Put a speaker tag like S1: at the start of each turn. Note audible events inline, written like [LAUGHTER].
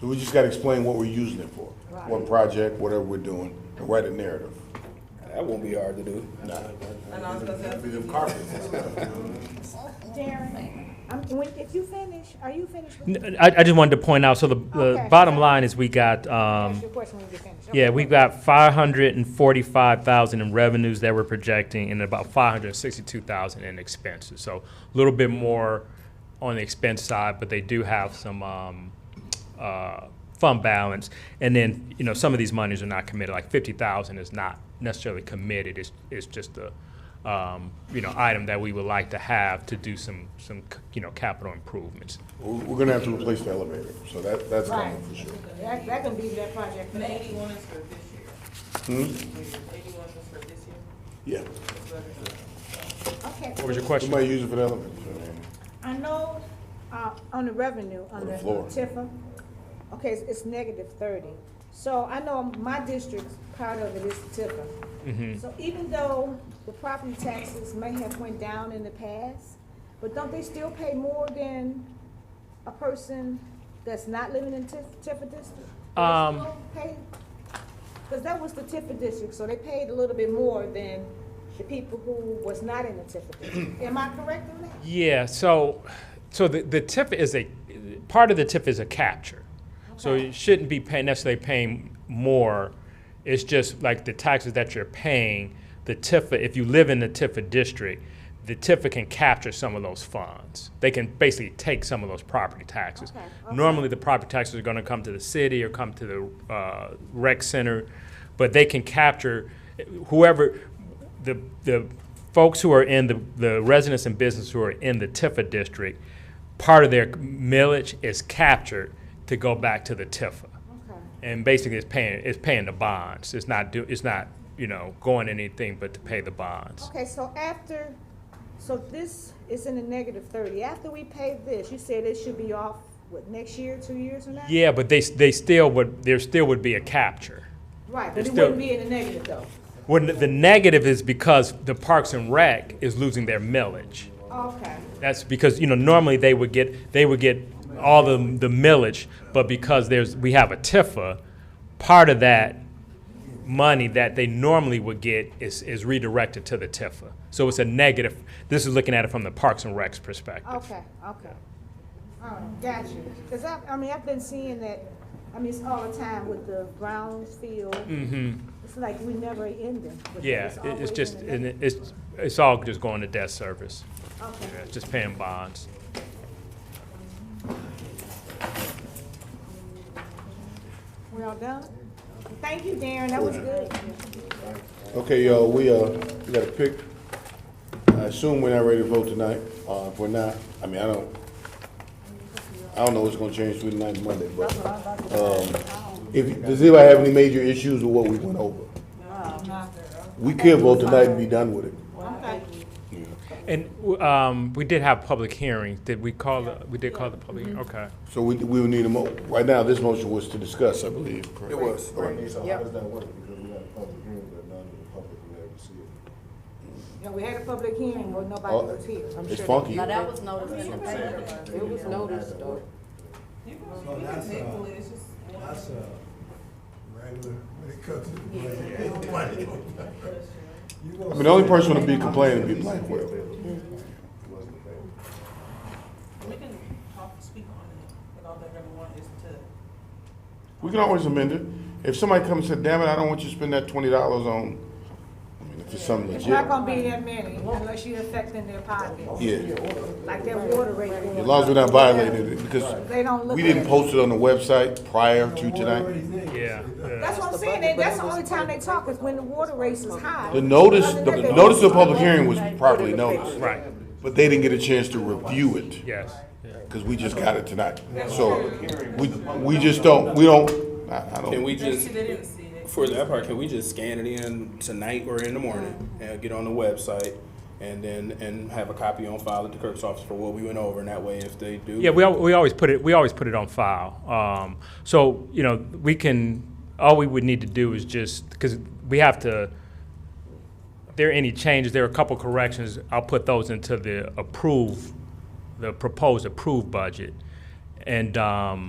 S1: So we just gotta explain what we're using it for, what
S2: Right.
S1: project, whatever we're doing, and write a narrative.
S3: That won't be hard to do.
S4: And I was gonna say-
S2: Darren, I'm, when, did you finish, are you finished? with-
S5: N- I, I just wanted to point out, so the, the
S2: Okay.
S5: bottom line is we got,
S2: Ask
S5: um,
S2: your question when you finish. Okay,
S5: yeah, we've
S2: go ahead.
S5: got five hundred and forty-five thousand in revenues that we're projecting and about five hundred and sixty-two thousand in expenses. So a little bit more on the expense side, but they do have some, um, uh, fund balance. And then, you know, some of these monies are not committed, like fifty thousand is not necessarily committed, it's, it's just a, um, you know, item that we would like to have to do some, some, c- you know, capital improvements.
S1: We're, we're gonna have to replace the elevator, so that, that's coming
S2: Right.
S1: for sure.
S2: That, that can be that project. for
S4: And
S2: that.
S4: eighty-one is for this year. Eighty-one is for this year.
S1: Yeah.
S4: That's what it is.
S2: Okay,
S5: What was your question?
S1: We might use it for the elevator, so, man.
S2: I know, uh, on the revenue, on
S1: On the
S2: the
S1: floor.
S2: Tifa, okay, it's, it's negative thirty. So I know my district's part of it is Tifa. So even though the property taxes may have went down in the past, but don't they still pay more than a person that's not living in Tif- Tifa district? Do they
S5: Um,
S2: still pay? Cause that was the Tifa district, so they paid a little bit more than the people who was not in the Tifa district. Am I correct in that?
S5: Yeah, so, so the, the tip is a, part of the tip is a capture. So
S2: Okay.
S5: you shouldn't be paying, necessarily paying more. It's just like the taxes that you're paying, the TIFA, if you live in the TIFA district, the TIFA can capture some of those funds. They can basically take some of those property taxes.
S2: Okay, okay.
S5: Normally, the property taxes are gonna come to the city or come to the, uh, rec center, but they can capture whoever, the, the folks who are in the, the residents and business who are in the Tifa district, part of their millage is captured to go back to the Tifa.
S2: Okay.
S5: And basically, it's paying, it's paying the bonds. It's not do, it's not, you know, going anything but to pay the bonds.
S2: Okay, so after, so this is in the negative thirty, after we pay this, you said it should be off, what, next year, two years from now?
S5: Yeah, but they, s- they still would, there still would be a capture.
S2: Right, but
S5: It's
S2: it
S5: still-
S2: wouldn't be in the negative though.
S5: When the negative is because the Parks and Rec is losing their millage.
S2: Okay,
S5: That's because, you know, normally they would get, they would get all the, the millage, but because there's, we have a TIFA, part of that money that they normally would get is, is redirected to the TIFA. So it's a negative, this is looking at it from the Parks and Recs perspective.
S2: okay, okay. All right, got you. Cause I, I mean, I've been seeing that, I mean, it's all the time with the Brownsfield,
S5: hmm
S2: it's like we never ending. with it.
S5: yeah, it-
S2: always
S5: it's just,
S2: in the
S5: and
S2: negative.
S5: it- it's, it's all just going to debt service,
S2: Okay.
S5: Yeah, it's just paying bonds.
S2: We're all done? Thank you, Darren, that was good.
S1: Okay, y'all, we, uh, we got a pick. I assume we're not ready to vote tonight. Uh, if we're not, I mean, I don't, I don't know what's gonna change through tonight and Monday, but, um, if, does anybody have any major issues with what we went over? We could vote tonight and be done with it.
S2: Okay.
S5: And, um, we did have public hearings, did we call, the- we did call the public, hearing? okay.
S1: So we, we would need a mo, right now, this motion was to discuss, I believe. It was.
S6: So how does that work? Because we had a public hearing, but none of the public will ever see it.
S2: Now, we had a public hearing where nobody was here.
S1: It's funky.
S7: Now, that was noticed in the paper. It was noticed though.
S4: You can, you can table it, it's just one
S8: Oh, uh, That's a regular, when it comes to the [LAUGHS] budget. You gonna
S1: I mean, the only person to be complaining would be Blackwell.
S6: Wasn't the paper.
S4: We can talk, speak on it, and all that everyone is to,
S1: We can always amend it. If somebody comes and said, damn it, I don't want you to spend that twenty dollars on, I mean, if it's something
S2: It's
S1: legit.
S2: not gonna be that many unless you're affecting their pockets,
S1: Yeah,
S2: like their water rate. going
S1: as long as we're not
S2: up.
S1: violating it, because
S2: They don't look.
S1: we didn't
S2: at it.
S1: post it on the website prior to tonight.
S5: Yeah, yeah.
S2: That's what I'm saying, they- that's the only time they talk is when the water rates is high.
S1: The notice,
S2: Other
S1: the
S2: than that, they-
S1: notice of public hearing was properly noticed.
S5: Right,
S1: But they didn't get a chance to review it.
S5: yes.
S1: Because we just got it tonight. So, we, we just don't, we don't, I, I
S3: Can
S1: don't,
S3: we
S4: they
S3: just,
S4: see, they didn't see it.
S3: for that part, can we just scan it in tonight or in the morning and get on the website? And then, and have a copy on file at the clerk's office for what we went over, and that way if they do.
S5: Yeah, we, al- we always put it, we always put it on file. Um, so, you know, we can, all we would need to do is just, because we have to, if there are any changes, there are a couple corrections, I'll put those into the approved, the proposed approved budget. And, um,